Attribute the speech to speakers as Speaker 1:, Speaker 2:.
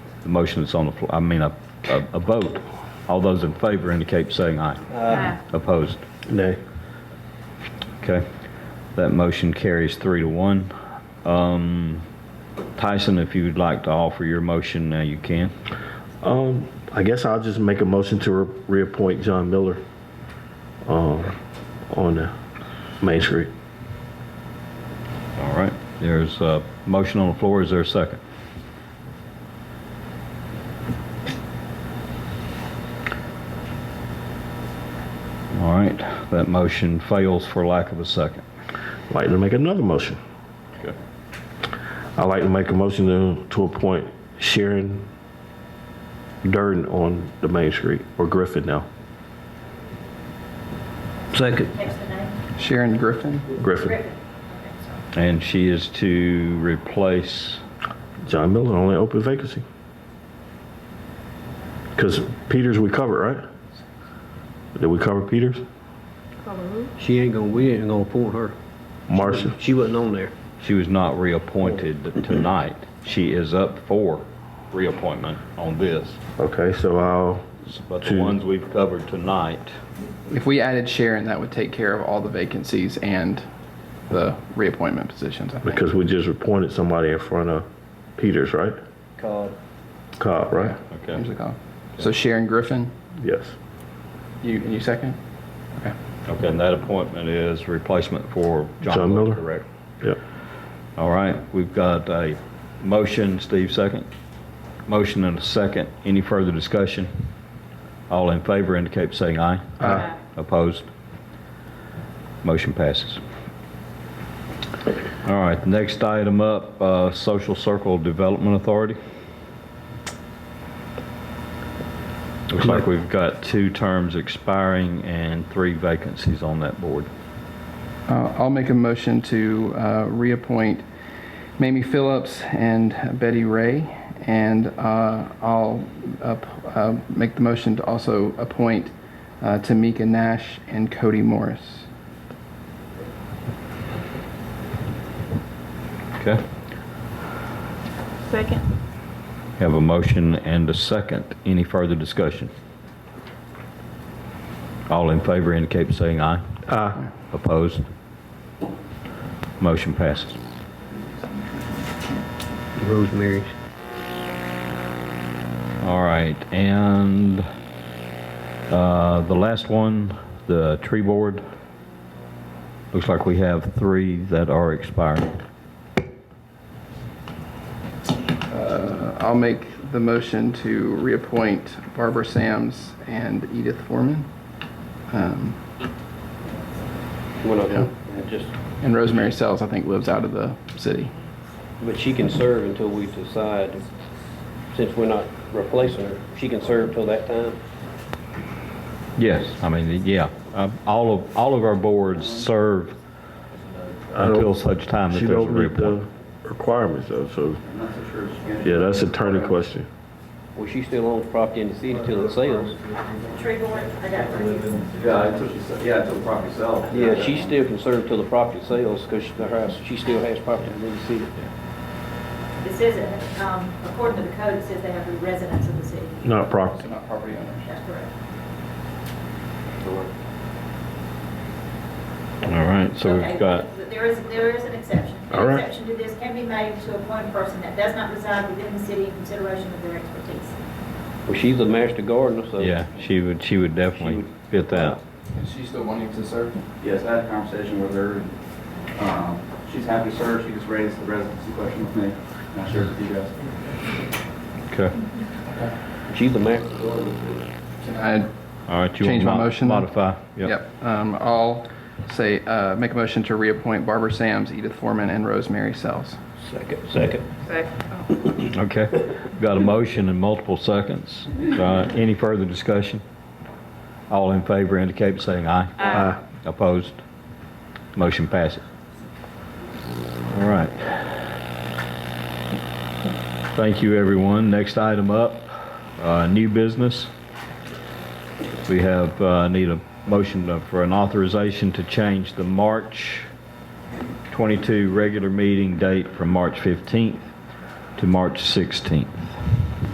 Speaker 1: the motion that's on the floor, I mean, a, a a vote. All those in favor indicate by saying aye. Opposed?
Speaker 2: Nay.
Speaker 1: Okay. That motion carries three to one. Um, Tyson, if you would like to offer your motion, now you can.
Speaker 2: Um, I guess I'll just make a motion to re- reappoint John Miller, um, on the Main Street.
Speaker 1: All right. There's a motion on the floor. Is there a second? All right. That motion fails for lack of a second.
Speaker 2: I'd Like to make another motion.
Speaker 1: Okay.
Speaker 2: I'd like to make a motion to, to appoint Sharon Durden on the Main Street, or Griffin now,
Speaker 3: Second.
Speaker 4: Text the name.
Speaker 3: Sharon Griffin?
Speaker 2: Griffin.
Speaker 4: Griffin. Okay, sorry.
Speaker 1: And she is to replace,
Speaker 2: John Miller, only open vacancy. Because Peters we covered, right? Did we cover Peters?
Speaker 5: She ain't gonna, we ain't gonna appoint her.
Speaker 2: Marcia?
Speaker 5: She wasn't on there.
Speaker 1: she was not reappointed tonight. She is up for reappointment on this.
Speaker 2: Okay, so I'll,
Speaker 1: But the
Speaker 2: To-
Speaker 1: ones we've covered tonight,
Speaker 6: If we added Sharon, that would take care of all the vacancies and the reappointment positions, I think.
Speaker 2: because we just appointed somebody in front of Peters, right?
Speaker 3: Called.
Speaker 2: Cobb, right?
Speaker 1: okay.
Speaker 6: Here's the call. So Sharon Griffin,
Speaker 2: Yes.
Speaker 6: you, you second? Okay.
Speaker 1: Okay, and that appointment is replacement for
Speaker 2: John
Speaker 1: John Miller,
Speaker 2: Miller.
Speaker 1: correct?
Speaker 2: Yep.
Speaker 1: All right, we've got a motion, Steve second. Motion and a second. Any further discussion? All in favor indicate by saying aye. Aye. Opposed? Motion passes. All right, next item up, uh, Social Circle Development Authority. Looks like we've got two terms expiring and three vacancies on that board.
Speaker 6: Uh, I'll make a motion to uh, reappoint Mamie Phillips and Betty Ray, and uh, I'll up- uh, make the motion to also appoint uh, Tamika Nash and Cody Morris.
Speaker 1: Okay?
Speaker 7: Second.
Speaker 1: Have a motion and a second. Any further discussion? All in favor indicate by saying aye.
Speaker 2: Aye.
Speaker 1: Opposed? Motion passes.
Speaker 5: Rosemary's.
Speaker 1: All right, and uh, the last one, the tree board. Looks like we have three that are expiring.
Speaker 6: I'll make the motion to reappoint Barbara Sams and Edith Foreman, um,
Speaker 5: One of them. And Just,
Speaker 6: and Rosemary Sells, I think, lives out of the city.
Speaker 5: but she can serve until we decide, since we're not replacing her, she can serve till that time.
Speaker 1: Yes, I mean, yeah, um, all of, all of our boards serve
Speaker 2: don't-
Speaker 1: until such time that
Speaker 2: She
Speaker 1: there's a
Speaker 2: don't meet
Speaker 1: reappointment.
Speaker 2: the requirements though, so. Yeah, that's attorney question.
Speaker 5: Well, she still owns property in the city till it sells.
Speaker 4: Tree board, I got three.
Speaker 8: Yeah, until she, se- yeah, until property sells.
Speaker 5: Yeah, she still can serve till the property sells, because the house, she still has property in the city.
Speaker 4: This isn't, um, according to the code, it says they have to be residents of the city.
Speaker 2: Not property.
Speaker 6: So not property owners.
Speaker 4: That's correct.
Speaker 1: All right, so
Speaker 4: Okay,
Speaker 1: we've got.
Speaker 4: There is, there is an exception.
Speaker 2: All right.
Speaker 4: An exception to this can be made to appoint a person that does not reside within the city in consideration of their expertise.
Speaker 5: Well, she's a master gardener, so.
Speaker 1: Yeah, she would, she would definitely fit that.
Speaker 6: Is she still wanting to serve?
Speaker 8: Yes, I had a conversation with her, and, um, she's happy to serve, she just raised the residency question with me, and I shared it with you guys.
Speaker 1: Okay.
Speaker 5: She's a master gardener.
Speaker 6: Can I?
Speaker 1: All right, you want
Speaker 6: Change my
Speaker 1: to
Speaker 6: motion then?
Speaker 1: modify? Yep.
Speaker 6: Yep. Um, I'll say, uh, make a motion to reappoint Barbara Sams, Edith Foreman, and Rosemary Sells.
Speaker 5: Second, second.
Speaker 1: Okay. Got a motion and multiple seconds. Uh, Any further discussion? All in favor indicate by saying aye. Aye. Opposed? Motion passes. All right. Thank you, everyone. Next item up, uh, new business. We have, uh, need a motion to- for an authorization to change the March 22 regular meeting date from March 15th to March 16th.